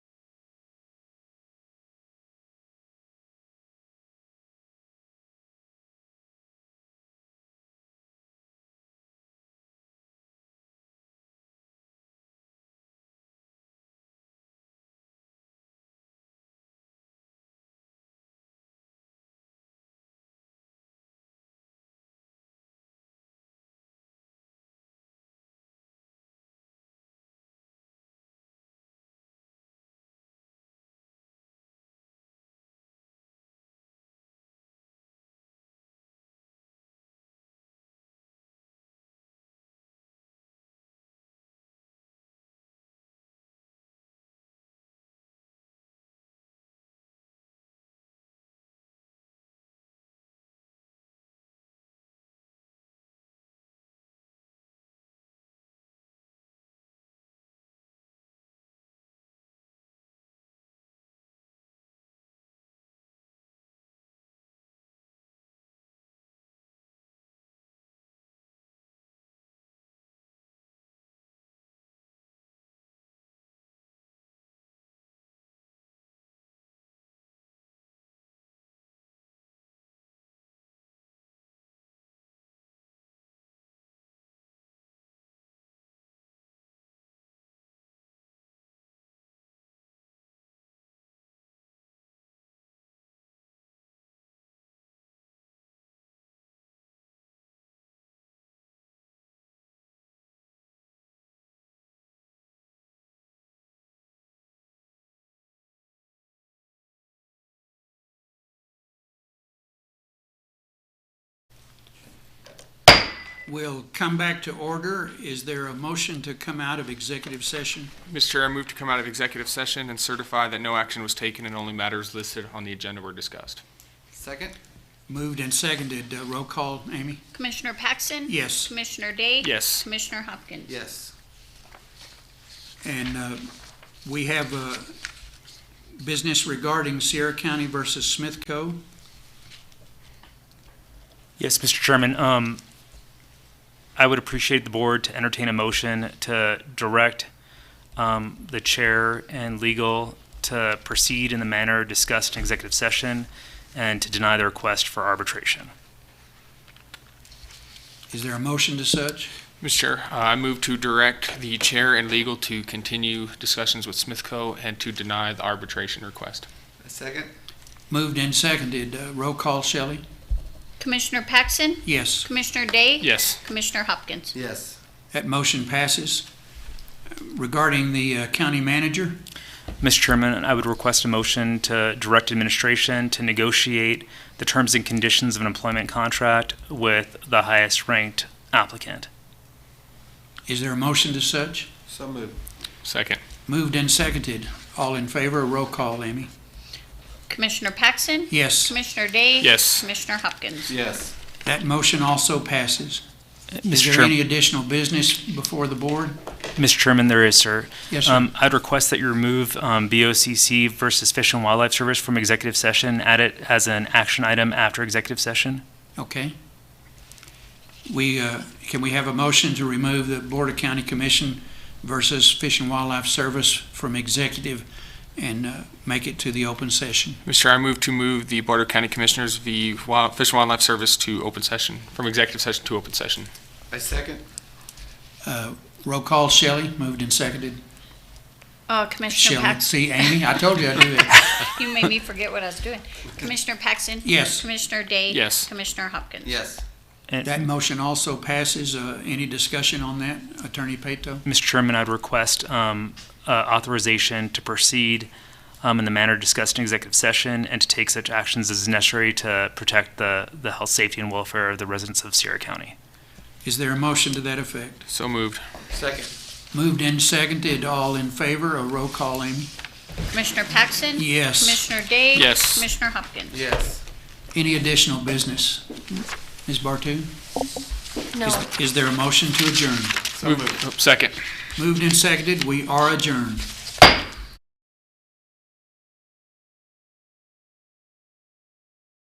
We'll come back to order. Is there a motion to come out of executive session? Mr. Chair, I move to come out of executive session and certify that no action was taken and only matters listed on the agenda were discussed. Second? Moved and seconded. Uh, Roll call, Amy? Commissioner Paxton? Yes. Commissioner Day? Yes. Commissioner Hopkins? Yes. And uh, we have uh business regarding Sierra County versus Smith Co. Yes, Mr. Chairman, um, I would appreciate the board to entertain a motion to direct, um, the chair and legal to proceed in the manner discussed in executive session and to deny the request for arbitration. Is there a motion to such? Mr. Chair, uh, I move to direct the chair and legal to continue discussions with Smithco and to deny the arbitration request. A second? Moved and seconded. Uh, Roll call, Shelley? Commissioner Paxton? Yes. Commissioner Day? Yes. Commissioner Hopkins? Yes. That motion passes. Regarding the uh, county manager, Mr. Chairman, I would request a motion to direct administration to negotiate the terms and conditions of an employment contract with the highest ranked applicant. is there a motion to such? So moved. Second. Moved and seconded. All in favor, roll call, Amy? Commissioner Paxton? Yes. Commissioner Day? Yes. Commissioner Hopkins? Yes. That motion also passes. Is Mr. there Chair- any additional business before the board? Mr. Chairman, there is, sir. Yes, sir. Um, I'd request that you remove um, BOCC versus Fish and Wildlife Service from executive session, add it as an action item after executive session. Okay. We, uh, can we have a motion to remove the Board of County Commission versus Fish and Wildlife Service from executive and uh, make it to the open session? Mr. Chair, I move to move the Board of County Commissioners v. Wild- Fish and Wildlife Service to open session, from executive session to open session. A second? Uh, Roll call, Shelley, moved and seconded. Uh, Commissioner Shelley, Paxton? see, Amy, I told you I'd do that. You made me forget what I was doing. Commissioner Paxton? Yes. Commissioner Day? Yes. Commissioner Hopkins? Yes. And, That motion also passes. Uh, Any discussion on that, Attorney Peto? Mr. Chairman, I'd request um, uh, authorization to proceed um, in the manner discussed in executive session and to take such actions as necessary to protect the, the health, safety, and welfare of the residents of Sierra County. Is there a motion to that effect? So moved. Second? Moved and seconded, all in favor, a roll call, Amy? Commissioner Paxton? Yes. Commissioner Day? Yes. Commissioner Hopkins? Yes. Any additional business? Ms. Bartu? No. Is- Is there a motion to adjourn? So moved. Second. Moved and seconded, we are adjourned.